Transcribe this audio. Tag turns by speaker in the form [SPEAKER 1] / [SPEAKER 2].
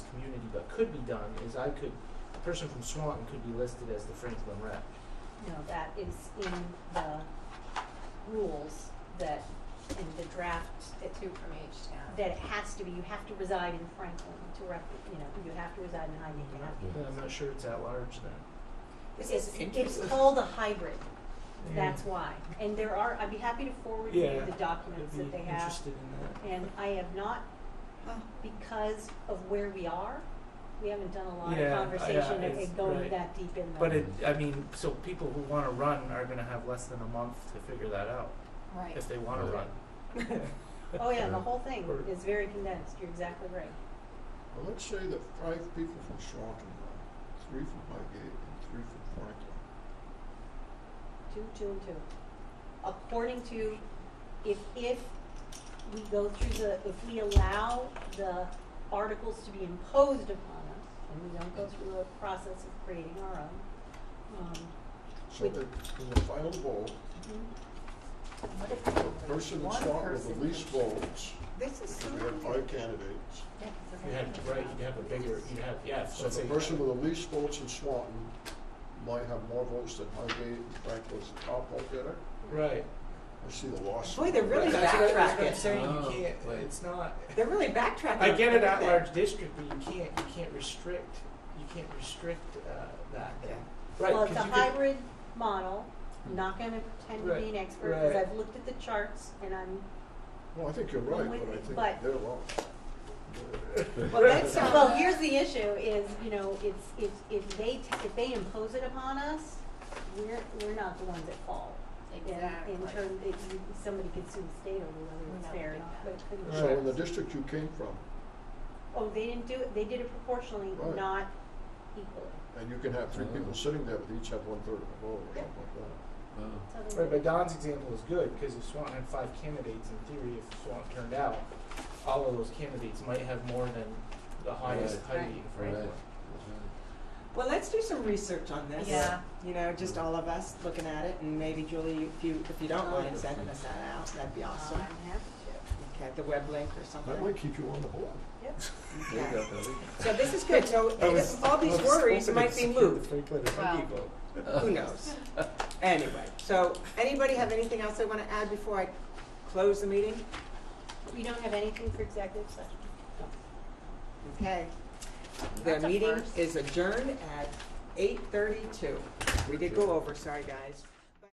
[SPEAKER 1] opportunity, but could be done, is I could, a person from Swanton could be listed as the Franklin rep.
[SPEAKER 2] No, that is in the rules that, in the draft,
[SPEAKER 3] The two from each town.
[SPEAKER 2] that it has to be, you have to reside in Franklin to rep, you know, you have to reside in Hyden to have.
[SPEAKER 1] And I'm not sure it's at large then.
[SPEAKER 3] This
[SPEAKER 2] It's-
[SPEAKER 3] is interesting.
[SPEAKER 2] It's called a hybrid, that's why. And there are, I'd be happy to forward you
[SPEAKER 1] Yeah,
[SPEAKER 2] the documents that they
[SPEAKER 1] I'd be
[SPEAKER 2] have.
[SPEAKER 1] interested in that.
[SPEAKER 2] And I have not,
[SPEAKER 3] Oh.
[SPEAKER 2] because of where we are, we haven't done a lot
[SPEAKER 1] Yeah,
[SPEAKER 2] of
[SPEAKER 1] yeah,
[SPEAKER 2] conversation
[SPEAKER 1] it's-
[SPEAKER 2] and uh, going
[SPEAKER 1] right.
[SPEAKER 2] that deep in the.
[SPEAKER 1] But it, I mean, so people who wanna run are gonna have less than a month to figure that out,
[SPEAKER 3] Right.
[SPEAKER 1] if they wanna
[SPEAKER 4] Right.
[SPEAKER 1] run.
[SPEAKER 2] Oh, yeah, the whole thing
[SPEAKER 1] uh, Or-
[SPEAKER 2] is very condensed, you're exactly right.
[SPEAKER 5] Well, let's say that five people from Swanton run, three from Highgate and three from Franklin.
[SPEAKER 2] Two, two, and two. According to, if, if we go through the, if we allow the articles to be imposed upon us, and we don't go through a process of creating our own, um,
[SPEAKER 5] So
[SPEAKER 2] Wait.
[SPEAKER 5] that in the final vote,
[SPEAKER 3] What if people
[SPEAKER 5] the
[SPEAKER 3] vote
[SPEAKER 5] person in
[SPEAKER 3] one
[SPEAKER 5] Swanton with
[SPEAKER 3] person
[SPEAKER 5] the least
[SPEAKER 3] to-
[SPEAKER 5] votes,
[SPEAKER 3] This is so
[SPEAKER 5] because we have five candidates.
[SPEAKER 1] You had, right, you'd have a bigger, you'd have, yeah, so
[SPEAKER 5] So
[SPEAKER 1] let's
[SPEAKER 5] the
[SPEAKER 1] say.
[SPEAKER 5] person with the least votes in Swanton might have more votes than Highgate and Franklin's the top vote getter.
[SPEAKER 1] Right.
[SPEAKER 5] I see the loss.
[SPEAKER 3] Boy, they're really
[SPEAKER 1] That's what I was gonna
[SPEAKER 3] backtracking.
[SPEAKER 1] say,
[SPEAKER 4] Oh,
[SPEAKER 1] you can't,
[SPEAKER 4] wait.
[SPEAKER 1] it's not.
[SPEAKER 3] They're really backtracking.
[SPEAKER 1] I get it at
[SPEAKER 3] on
[SPEAKER 1] large district, but you can't, you can't restrict, you can't restrict, uh, that then. Right,
[SPEAKER 2] Well, it's a
[SPEAKER 1] 'cause you could-
[SPEAKER 2] hybrid model, I'm not gonna pretend to be
[SPEAKER 1] Right,
[SPEAKER 2] an expert, cause
[SPEAKER 1] right.
[SPEAKER 2] I've looked at the charts and I'm,
[SPEAKER 5] Well, I think you're right,
[SPEAKER 2] Well, we-
[SPEAKER 5] but I
[SPEAKER 2] but-
[SPEAKER 5] think they're wrong.
[SPEAKER 3] Well, that's not-
[SPEAKER 2] well, here's the issue is, you know, it's, it's, if they, t- if they impose it upon us, we're, we're not the ones at fault. In-
[SPEAKER 3] Exactly.
[SPEAKER 2] In terms, it, you- somebody could sue the state over whether
[SPEAKER 3] We're
[SPEAKER 2] it's
[SPEAKER 3] not
[SPEAKER 2] fair or
[SPEAKER 3] doing that.
[SPEAKER 2] not, but it couldn't.
[SPEAKER 5] So in the
[SPEAKER 1] Right.
[SPEAKER 5] district you came from,
[SPEAKER 2] Oh, they didn't do it, they did it proportionally,
[SPEAKER 5] Right.
[SPEAKER 2] not equally,
[SPEAKER 5] and you can have three
[SPEAKER 4] Oh.
[SPEAKER 5] people sitting there, but each have one third of the vote or
[SPEAKER 2] Yeah.
[SPEAKER 5] something like that.
[SPEAKER 4] Wow.
[SPEAKER 2] so they
[SPEAKER 1] Right,
[SPEAKER 2] did
[SPEAKER 1] but
[SPEAKER 2] it-
[SPEAKER 1] Don's example is good, because if Swanton had five candidates, in theory, if Swanton turned out, all of those candidates might have more than the highest
[SPEAKER 2] Right.
[SPEAKER 1] height in Franklin.
[SPEAKER 4] Right. Right.
[SPEAKER 6] Well, let's do some research on this.
[SPEAKER 3] Yeah.
[SPEAKER 6] You know, just all of us looking at it, and maybe Julie, if you, if you don't mind sending us that out, that'd be
[SPEAKER 2] I'm
[SPEAKER 6] awesome.
[SPEAKER 2] happy to,
[SPEAKER 6] Okay, the web link or something.
[SPEAKER 5] That might keep you on the board.
[SPEAKER 2] yep.
[SPEAKER 4] There you
[SPEAKER 6] Okay.
[SPEAKER 4] go, Billy.
[SPEAKER 6] So this is good, so
[SPEAKER 1] I was-
[SPEAKER 6] all these
[SPEAKER 1] I was
[SPEAKER 6] worries
[SPEAKER 1] hoping
[SPEAKER 6] might
[SPEAKER 1] to
[SPEAKER 6] be
[SPEAKER 1] secure the
[SPEAKER 6] moved.
[SPEAKER 1] Franklin and
[SPEAKER 3] Well.
[SPEAKER 1] Huggy vote.
[SPEAKER 6] Who knows? Uh, Anyway, so anybody have anything else they wanna add before I close the meeting?
[SPEAKER 2] You don't have anything for executive session?
[SPEAKER 6] Okay. The
[SPEAKER 3] That's a
[SPEAKER 6] meeting
[SPEAKER 3] first.
[SPEAKER 6] is adjourned at eight thirty-two. We did go over, sorry guys.